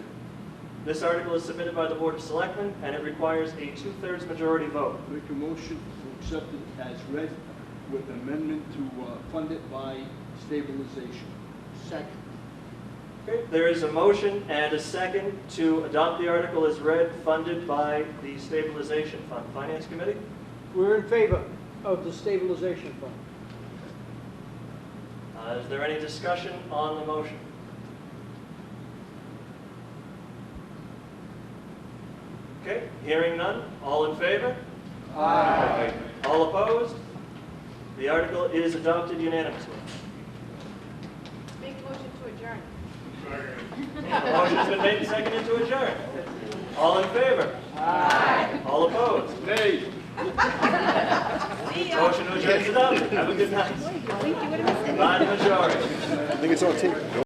This article is submitted by the Board of Selectmen, and it requires a two-thirds majority vote. Make a motion to accept it as read with amendment to uh, fund it by stabilization. Second. Okay, There is a motion and a second to adopt the article as read, funded by the Stabilization Fund. Finance Committee? We're in favor of the stabilization fund. Uh, Is there any discussion on the motion? Okay, hearing none, all in favor? Aye. All opposed? The article is adopted unanimously. Make a motion to adjourn. Motion's been made and seconded to adjourn. All in favor? Aye. All opposed? Nay. See ya. Motion to adjourn is adopted. Have a good night. Wait, you would've missed it. By the majority. I think it's on tape.